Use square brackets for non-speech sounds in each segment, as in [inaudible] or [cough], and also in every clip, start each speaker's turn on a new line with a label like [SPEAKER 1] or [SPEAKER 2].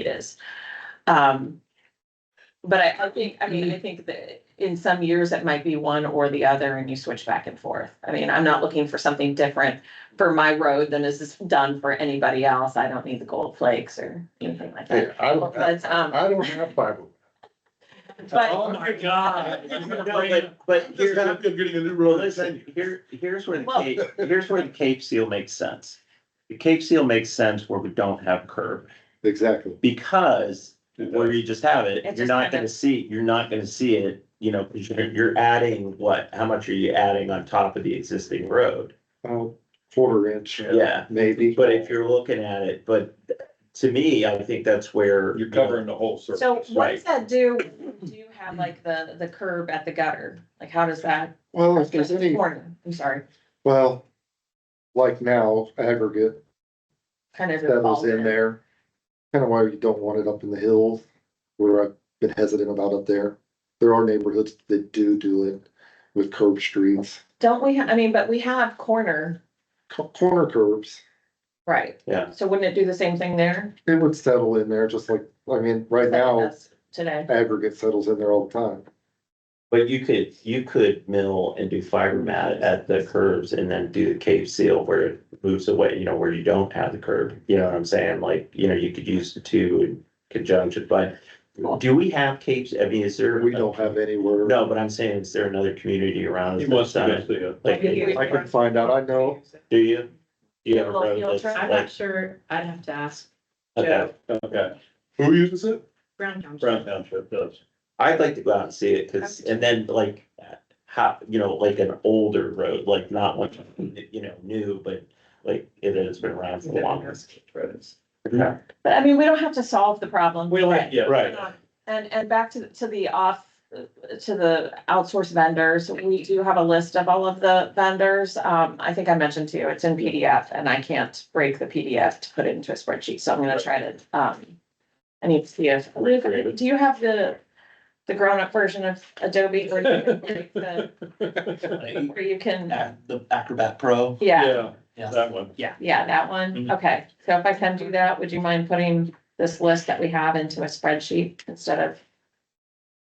[SPEAKER 1] it is. Um, but I, I think, I mean, I think that in some years it might be one or the other and you switch back and forth. I mean, I'm not looking for something different for my road than is done for anybody else. I don't need the gold flakes or anything like that.
[SPEAKER 2] Hey, I don't,
[SPEAKER 1] But, um,
[SPEAKER 2] I don't have five. Oh
[SPEAKER 1] but,
[SPEAKER 3] Oh
[SPEAKER 1] um,
[SPEAKER 3] my God.
[SPEAKER 4] But, but
[SPEAKER 2] Just
[SPEAKER 4] here's,
[SPEAKER 2] not good getting a new
[SPEAKER 4] well,
[SPEAKER 2] road.
[SPEAKER 4] listen, here, here's where the
[SPEAKER 1] Well-
[SPEAKER 4] Cape, here's where the Cape Seal makes sense. The Cape Seal makes sense where we don't have curb,
[SPEAKER 2] Exactly.
[SPEAKER 4] because where you just have it,
[SPEAKER 1] It
[SPEAKER 4] you're
[SPEAKER 1] just
[SPEAKER 4] not
[SPEAKER 1] kinda-
[SPEAKER 4] gonna see, you're not gonna see it, you know, because you're, you're adding what, how much are you adding on top of the existing road?
[SPEAKER 2] About quarter inch,
[SPEAKER 4] Yeah,
[SPEAKER 2] maybe.
[SPEAKER 4] but if you're looking at it, but to me, I think that's where.
[SPEAKER 3] You're covering the whole surface.
[SPEAKER 1] so what does
[SPEAKER 4] Right.
[SPEAKER 1] that do? Do you have like the, the curb at the gutter? Like how does that?
[SPEAKER 2] Well, if there's any,
[SPEAKER 1] Corner, I'm sorry,
[SPEAKER 2] well, like now aggregate
[SPEAKER 1] kind of.
[SPEAKER 2] that was
[SPEAKER 1] involved
[SPEAKER 2] in there. Kind of why you don't want it up in the hills, where I've been hesitant about up there. There are neighborhoods that do do it with curb streets,
[SPEAKER 1] Don't we, ha- I mean, but we have corner,
[SPEAKER 2] co- corner curbs.
[SPEAKER 1] right?
[SPEAKER 4] Yeah.
[SPEAKER 1] So wouldn't it do the same thing there?
[SPEAKER 2] It would settle in there just like, I mean, right now
[SPEAKER 1] That's Today.
[SPEAKER 2] aggregate settles in there all the time.
[SPEAKER 4] But you could, you could mill and do fiber mat at the curves and then do the cave seal where it moves away, you know, where you don't have the curb. You know what I'm saying? Like, you know, you could use the two in conjunction, but do we have caves? I mean, is there?
[SPEAKER 2] We don't have anywhere.
[SPEAKER 4] No, but I'm saying, is there another community around?
[SPEAKER 3] He
[SPEAKER 4] us
[SPEAKER 3] wants
[SPEAKER 4] that's
[SPEAKER 3] to
[SPEAKER 4] done
[SPEAKER 3] go
[SPEAKER 4] it?
[SPEAKER 3] see it.
[SPEAKER 4] Like, do
[SPEAKER 2] I can find out. I know
[SPEAKER 4] you? Do you have a
[SPEAKER 1] Little field
[SPEAKER 4] road that's
[SPEAKER 1] trip.
[SPEAKER 5] I'm not
[SPEAKER 4] like?
[SPEAKER 5] sure, I'd have to ask
[SPEAKER 4] Okay,
[SPEAKER 3] Okay,
[SPEAKER 2] Who uses it?
[SPEAKER 5] Brown Township.
[SPEAKER 3] Brown Township does.
[SPEAKER 4] I'd like to go out and see it, cause, and then like, how, you know, like an older road, like not one, you know, new, but like it has been around for the longest. Okay.
[SPEAKER 1] But I mean, we don't have to solve the problem.
[SPEAKER 3] We like,
[SPEAKER 1] today.
[SPEAKER 3] yeah.
[SPEAKER 4] Right.
[SPEAKER 1] And, and back to, to the off, to the outsourced vendors, we do have a list of all of the vendors. Um, I think I mentioned to you, it's in PDF and I can't break the PDF to put it into a spreadsheet, so I'm gonna try to, um. I need to see if, Luke, do you have the, the grown-up version of Adobe? where you can break the- Where you
[SPEAKER 4] [laughs]
[SPEAKER 1] can,
[SPEAKER 6] the Acrobat Pro.
[SPEAKER 1] yeah,
[SPEAKER 3] Yeah,
[SPEAKER 6] Yeah.
[SPEAKER 3] that one.
[SPEAKER 1] yeah, that one,
[SPEAKER 6] Mm-hmm.
[SPEAKER 3] Mhm.
[SPEAKER 1] okay. So if I can do that, would you mind putting this list that we have into a spreadsheet instead of?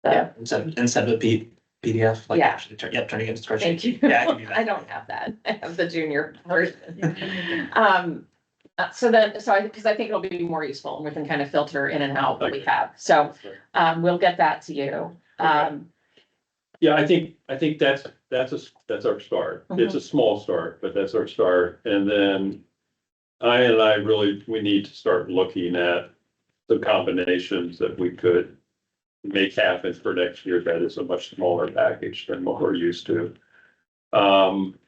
[SPEAKER 1] the
[SPEAKER 6] Instead, of- instead of a P- PDF, like
[SPEAKER 1] Yeah.
[SPEAKER 6] actually, turn- yeah, turning it into spreadsheet.
[SPEAKER 1] Thank you.
[SPEAKER 6] Yeah, I
[SPEAKER 1] [laughs]
[SPEAKER 6] can do
[SPEAKER 1] I
[SPEAKER 6] that.
[SPEAKER 1] don't have that. I have
[SPEAKER 6] [laughs]
[SPEAKER 1] the junior version. Um, uh, so then, so I, because I think it'll be more useful and we can kind of filter in and out what we have. So, um, we'll get that to you. Um,
[SPEAKER 3] Yeah, I think, I think that's, that's a, that's our start. It's a small start, but that's our start. And then I and I really, we need to start looking at the combinations that we could make happen for next year. That is a much smaller package than what we're used to. Um,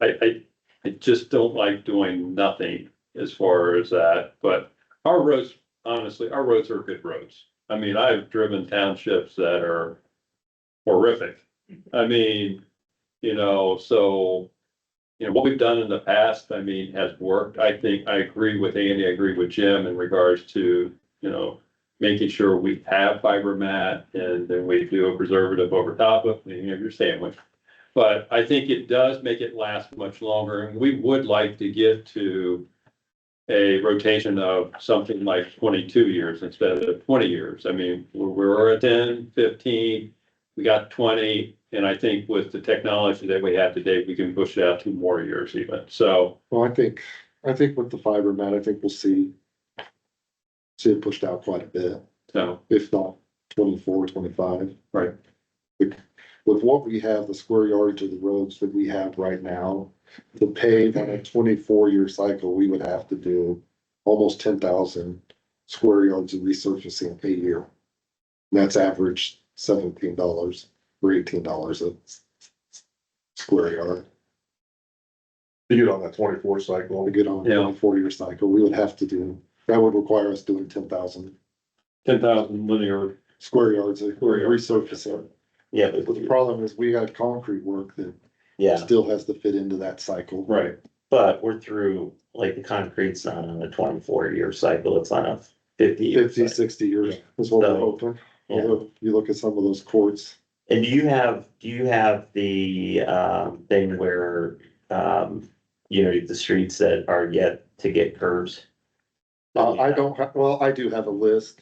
[SPEAKER 3] I, I, I just don't like doing nothing as far as that, but our roads, honestly, our roads are good roads. I mean, I've driven townships that are horrific. I mean, you know, so, you know, what we've done in the past, I mean, has worked. I think, I agree with Andy, I agree with Jim in regards to, you know, making sure we have fiber mat and then we do a preservative over top of, you know, your sandwich. But I think it does make it last much longer and we would like to get to a rotation of something like twenty-two years instead of twenty years. I mean, we're, we're at 10, 15. We got twenty, and I think with the technology that we have today, we can push it out two more years even. So,
[SPEAKER 2] Well, I think, I think with the fiber mat, I think we'll see. See it pushed out quite a bit,
[SPEAKER 3] so,
[SPEAKER 2] if not twenty-four, twenty-five.
[SPEAKER 3] Right.
[SPEAKER 2] With, with what we have, the square yardage of the roads that we have right now, to pave on a twenty-four year cycle, we would have to do. Almost ten thousand square yards of resurfacing a year. And That's average seventeen dollars or eighteen dollars a s- s- square yard.
[SPEAKER 7] to get on that twenty-four
[SPEAKER 2] want
[SPEAKER 7] cycle.
[SPEAKER 2] to get on
[SPEAKER 3] Yeah.
[SPEAKER 2] a four-year cycle, we would have to do, that would require us doing ten thousand
[SPEAKER 3] ten thousand linear,
[SPEAKER 2] square yards of
[SPEAKER 3] Square yards.
[SPEAKER 2] resurfacing.
[SPEAKER 4] Yeah,
[SPEAKER 2] But the
[SPEAKER 4] but,
[SPEAKER 2] problem is, we got concrete work that
[SPEAKER 4] yeah,
[SPEAKER 2] still has to fit into that cycle.
[SPEAKER 3] right,
[SPEAKER 4] but we're through, like, the concrete's not on a twenty-four year cycle, it's on a fifty. year
[SPEAKER 2] Fifty,
[SPEAKER 4] cycle.
[SPEAKER 2] sixty years is what we're
[SPEAKER 4] So,
[SPEAKER 2] hoping,
[SPEAKER 4] Yeah.
[SPEAKER 2] although you look at some of those courts,
[SPEAKER 4] And do you have, do you have the, um, thing where, um, you know, the streets that are yet to get curves?
[SPEAKER 2] Uh, I don't, ha- well, I do have a list